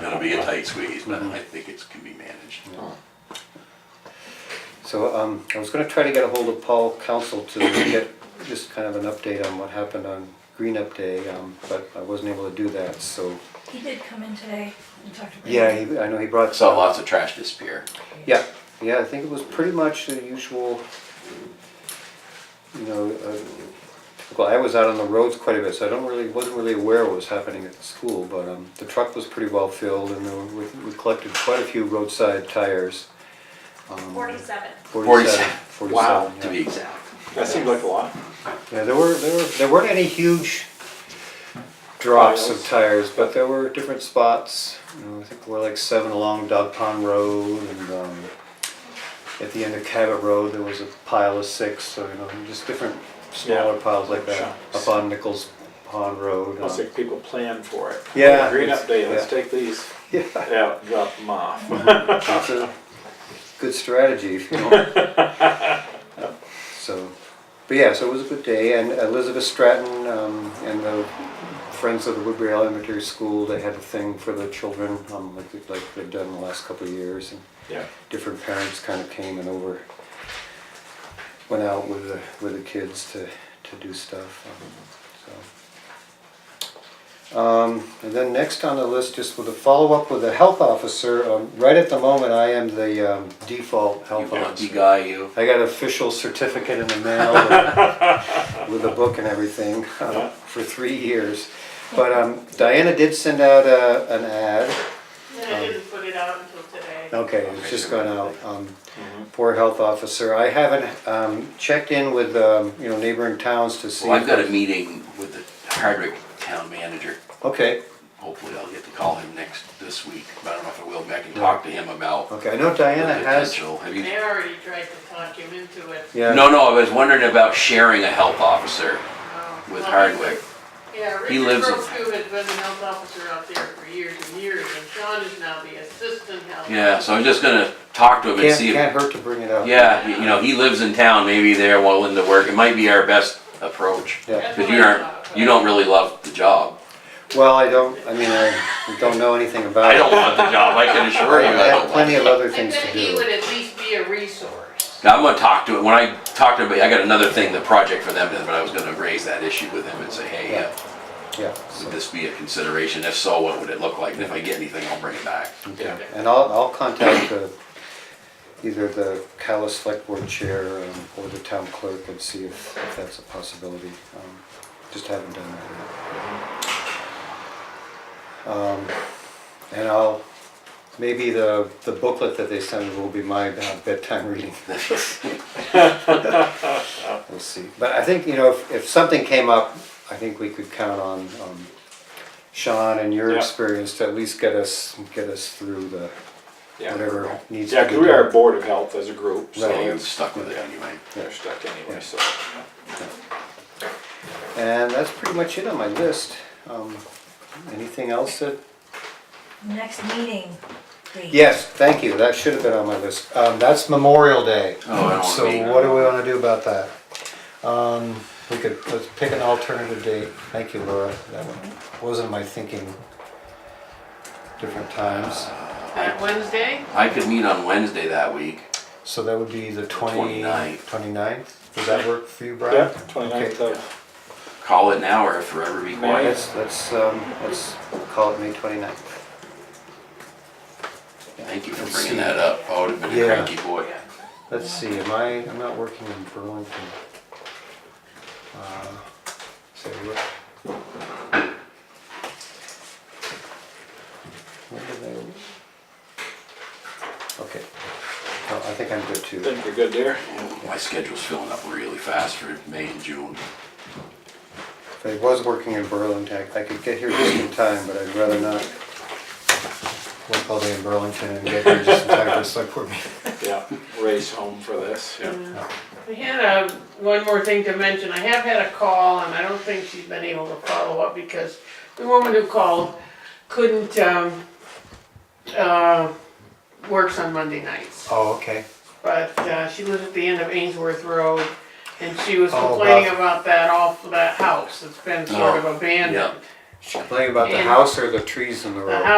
it's through easement, I think it can be managed. So um, I was gonna try to get a hold of Paul Council to get just kind of an update on what happened on Green Up Day, um, but I wasn't able to do that, so. He did come in today and talk to. Yeah, Brandon. he- I know he I brought. saw lots of trash disappear. Yeah, yeah, I think it was pretty much the usual, you know, uh, well, I was out on the roads quite a bit, so I don't really, wasn't really aware what was happening at the school, but um, the truck was pretty well filled and there were- we we collected quite a few roadside tires. um, Forty-seven. Forty-seven. Wow, Forty-seven, to be yeah. exact. That seemed like a lot. Yeah, there were, there were, there weren't any huge drops of Piles. tires, but there were different spots. You know, I think there were like seven along Dog Pond Road and, um, at the end of Cabot Road, there was a pile of six, so, you know, just different smaller Yeah. piles like that. Up Chunks. on Nichols Pond Road. Almost um, like people plan for it. Yeah. Green up day, let's Yeah. take these Yeah, out, and drop them off. it's a good strategy, if you know. So, but yeah, so it was a good day, and Elizabeth Stratton, um, and the Friends of the Woodbury Elementary School, they had a thing for the children, um, like, they- like they've done the last couple of years, and Yeah. different parents kind of came and over, went out with the, with the kids to, to do stuff, um, so. Um, And then next on the list, just with a follow-up with the health officer, um, right at the moment, I am the um, default You health lucky officer. guy, you. I got an official certificate in the mail with- with a book and everything uh, Yeah. for three years. But um, Diana did send out a- an ad, And I didn't put it out until today. okay, it's just gone out, um, Mm-hmm. Mhm. for health officer. I haven't um, checked in with, um, you know, neighboring towns to see. Well, I've got a meeting with the Hardwick town manager. Okay, Hopefully I'll get to call him next, this week, but I don't know if I will, but I can talk to him about the okay, I know Diana has, potential. Have you? They already tried to talk him into it. yeah. No, no, I was wondering about sharing a health officer um, with well, Hardwick. Yeah, He Richard lives in- Grosku has been the health officer out there for years and years, and Sean is now the assistant health. Yeah, so I'm just gonna talk to him and Can't, see if can't hurt to bring it up. Yeah, you know, he lives in town, maybe they're willing to work, it might be our best approach. Yeah. That's Cause what you I aren't, thought, you but- don't really love the job. Well, I don't, I mean, I don't know anything about it. I don't love the job, I can assure I you, I have don't love plenty it. of other I things bet to he would do. at least be a resource. Now, I'm gonna talk to him, when I talk to him, I got another thing, the project for them, but I was gonna raise that issue with him and say, hey, uh, Yeah. would this be a consideration, if so, what would it look like, and if I get anything, I'll bring it back. Yeah. And I'll, I'll contact uh, either the Callis Select Board Chair um, or the town clerk and see if if that's a possibility. Um, Just haven't done that yet. Um, And I'll, maybe the the booklet that they send will be my uh, bedtime reading. We'll see. But I think, you know, if, if something came up, I think we could count on um, Sean and your Yeah. experience to at least get us, get us through the, Yeah, whatever needs yeah, to be because we are a done. board of health as a group, so So you're it's- stuck with it anyway. they're stuck anyway, so. And that's pretty much it on my list. Um, Anything else that, Next meeting date. yes, thank you, that should have been on my list. Um, That's Memorial Day. Oh, I don't wanna be- So what do we want to do about that? Um, We could, let's pick an alternative date. Thank you, Laura, that one wasn't my thinking. Different times. That Wednesday? I could meet on Wednesday that week, So that would be the 20, 29th. 29th? Does that work for you, Brian? Yeah, twenty-ninth Okay. of, call it now or forever be May. quiet. Let's, let's, um, let's call it May 29th. Thank you for bringing that up, I would've been a Yeah. cranky boy. Let's see, am I, I'm not working in Burlington. Uh, Say what? When did I- Okay, No, I think I'm good I too. think you're good there. My schedule's filling up really fast for May and June. If I was working in Burlington, I could get here just in time, but I'd rather not work all day in Burlington and get here just in time for a select board meeting. Yeah, race home for this, yeah. I had a, one more thing to mention, I have had a call, and I don't think she's been able to follow up, because the woman who called couldn't, um, uh, works on Monday nights. Oh, okay. But, uh, she lives at the end of Ainsworth Road, and she was Oh, about- complaining about that off, that house that's been sort of Oh, yeah. abandoned. Complaining about the And- house or the trees in the road? The house